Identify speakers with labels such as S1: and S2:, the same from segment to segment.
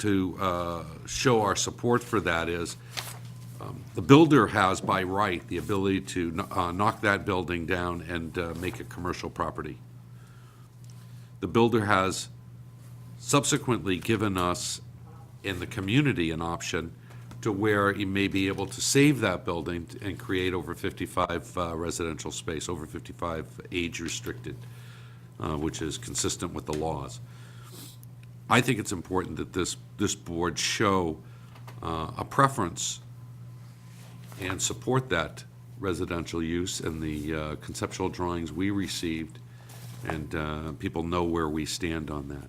S1: to uh, show our support for that is, um, the builder has by right the ability to kn- uh, knock that building down and uh, make a commercial property. The builder has subsequently given us in the community an option to where he may be able to save that building and create over 55 uh, residential space, over 55 age-restricted, uh, which is consistent with the laws. I think it's important that this, this board show uh, a preference and support that residential use and the uh, conceptual drawings we received, and uh, people know where we stand on that.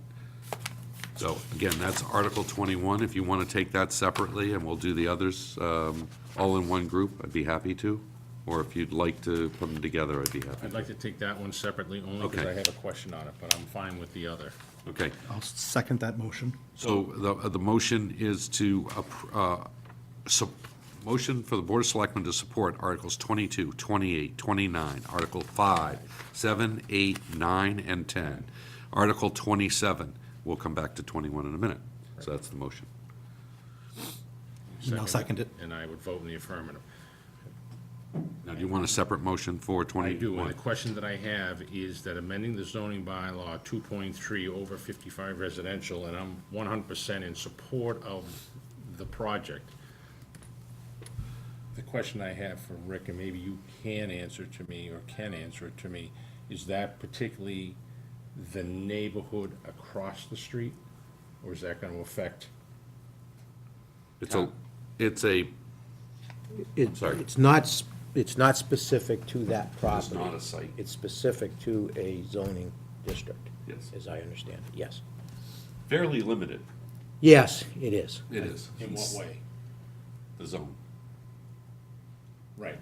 S1: So again, that's Article 21. If you want to take that separately, and we'll do the others um, all in one group, I'd be happy to. Or if you'd like to put them together, I'd be happy.
S2: I'd like to take that one separately, only because
S1: Okay.
S2: I have a question on it, but I'm fine with the other.
S1: Okay.
S3: I'll second that motion.
S1: So the, the motion is to, appr- uh, sup- motion for the Board of Selectmen to support Articles 22, 28, 29, Article 5, 7, 8, 9, and 10. Article 27, we'll come back to 21 in a minute. So that's the motion.
S3: And I'll second it.
S2: And I would vote in the affirmative.
S1: Now, do you want a separate motion for
S2: I
S1: 21?
S2: do, and the question that I have is that amending the zoning bylaw two point three over fifty-five residential, and I'm one hundred percent in support of the project. The question I have for Rick, and maybe you can answer to me or can answer it to me, is that particularly the neighborhood across the street? Or is that gonna affect,
S1: It's a, it's a,
S4: It-
S1: Sorry.
S4: It's not, s- it's not specific to that property.
S1: not a site.
S4: It's specific to a zoning district.
S1: Yes.
S4: As I understand it, yes.
S1: fairly limited.
S4: Yes, it is.
S1: It is.
S2: in what way?
S1: The zone.
S2: Right.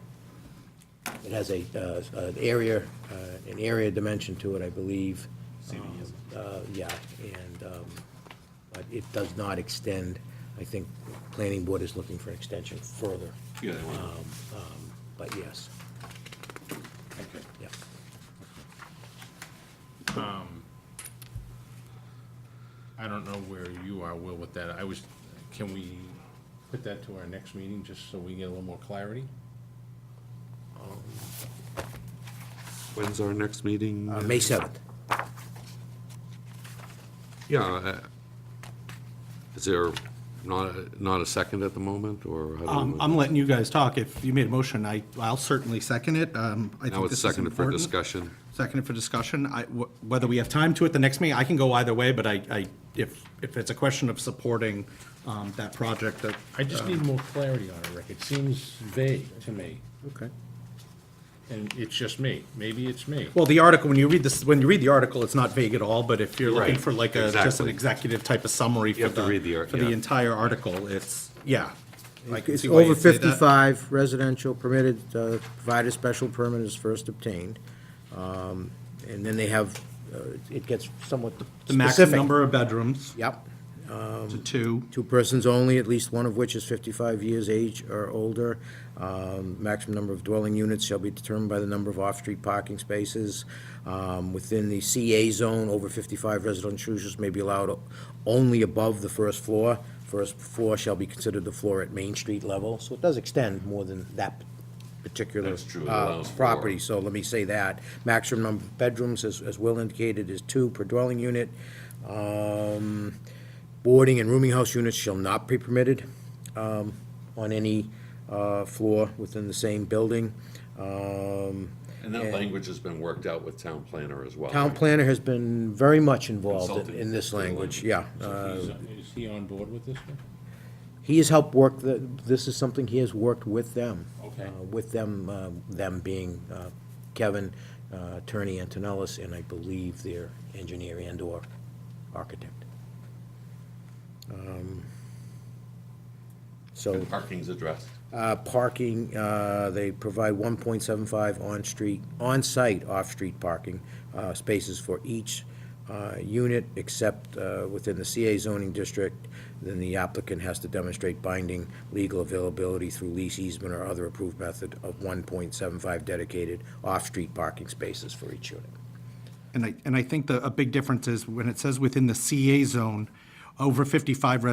S4: It has a, uh, an area, uh, an area dimension to it, I believe. Uh, Yeah, and, um, but it does not extend, I think the planning board is looking for an extension further,
S1: Yeah, they want-
S4: but yes,
S2: Okay.
S4: yeah.
S2: I don't know where you are, Will, with that. I was, can we put that to our next meeting, just so we get a little more clarity?
S1: When's our next meeting?
S4: Uh, May 7th.
S1: Yeah. uh, Is there not, a- not a second at the moment, or? how do you
S3: Um,
S1: want-
S3: I'm letting you guys talk. If you made a motion, I, I'll certainly second it. Um, I
S1: Now
S3: think
S1: it's
S3: this is
S1: seconded for
S3: important.
S1: discussion.
S3: Seconded for discussion. I, wh- whether we have time to at the next meeting, I can go either way, but I, I, if, if it's a question of supporting, um, that project, that,
S2: I just need more clarity on it, Rick. It seems vague to me,
S3: okay.
S2: and it's just me. Maybe it's me.
S3: Well, the article, when you read this, when you read the article, it's not vague at all, but if you're looking
S1: Right,
S3: for like a, just an
S1: exactly.
S3: executive type of summary for
S1: have to read the
S3: the,
S1: ar-
S3: for the
S1: yeah.
S3: entire article, it's, yeah. I can
S4: It's
S3: see why
S4: over
S3: you'd say that.
S4: 55 residential permitted, uh, provided special permit is first obtained. Um, And then they have, uh, it gets somewhat
S3: The maximum
S4: specific.
S3: number of bedrooms
S4: Yep.
S3: to two.
S4: Two persons only, at least one of which is 55 years age or older. Um, Maximum number of dwelling units shall be determined by the number of off-street parking spaces. Um, Within the CA zone, over 55 residential users may be allowed only above the first floor. First floor shall be considered the floor at Main Street level. So it does extend more than that particular
S1: That's true, it
S4: uh,
S1: allows for-
S4: property. So let me say that. Maximum number of bedrooms, as as Will indicated, is two per dwelling unit. Um, Boarding and rooming house units shall not be permitted um, on any uh, floor within the same building. Um,
S1: And that language has been worked out with town planner as well.
S4: Town
S1: right?
S4: planner has been very much involved in-
S1: Consulting.
S4: in this language, yeah. Uh,
S2: Is is he on board with this? one?
S4: He has helped work, the- this is something he has worked with them.
S2: Okay.
S4: uh, With them, uh, them being uh, Kevin, uh, attorney Antonellis, and I believe their engineer and/or architect. Um, So.
S1: And Parking's addressed.
S4: Uh, Parking, uh, they provide 1.75 on-street, on-site, off-street parking uh, spaces for each uh, unit, except uh, within the CA zoning district, then the applicant has to demonstrate binding legal availability through lease easement or other approved method of 1.75 dedicated off-street parking spaces for each unit.
S3: And I, and I think the, a big difference is when it says within the CA zone, over 55 residents